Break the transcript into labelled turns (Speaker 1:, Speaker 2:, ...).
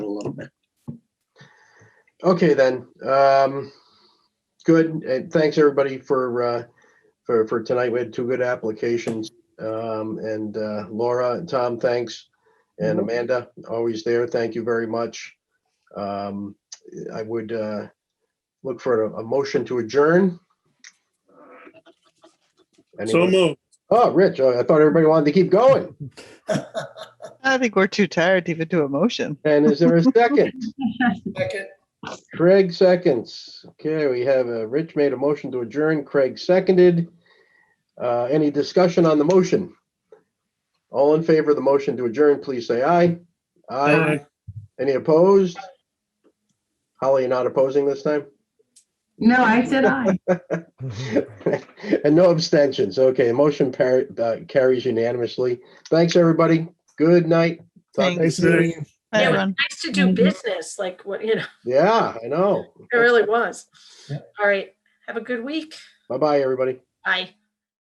Speaker 1: Okay, then. Um, good. And thanks everybody for, uh, for, for tonight. We had two good applications. Um, and, uh, Laura and Tom, thanks. And
Speaker 2: Mhm.
Speaker 1: Amanda, always there. Thank you very much. Um, I would, uh, look for a, a motion to adjourn.
Speaker 3: So
Speaker 1: Anyone?
Speaker 3: moved.
Speaker 1: Oh, Rich, oh, I thought everybody wanted to keep going.
Speaker 4: I think we're too tired to even do a motion.
Speaker 1: And is there a second?
Speaker 2: Second.
Speaker 1: Craig seconds. Okay, we have, uh, Rich made a motion to adjourn, Craig seconded. Uh, any discussion on the motion? All in favor of the motion to adjourn, please say aye.
Speaker 3: Aye.
Speaker 1: Any opposed? Holly, you're not opposing this time?
Speaker 5: No, I said aye.
Speaker 1: And no abstentions. Okay, motion par- uh, carries unanimously. Thanks, everybody. Good night. Talk-
Speaker 4: Thanks.
Speaker 3: Nice meeting you.
Speaker 4: Hi,
Speaker 6: Yeah.
Speaker 4: everyone.
Speaker 6: nice to do business, like what, you know,
Speaker 1: Yeah, I know.
Speaker 6: it really was.
Speaker 2: Yeah.
Speaker 6: All right. Have a good week.
Speaker 1: Bye-bye, everybody.
Speaker 6: Bye.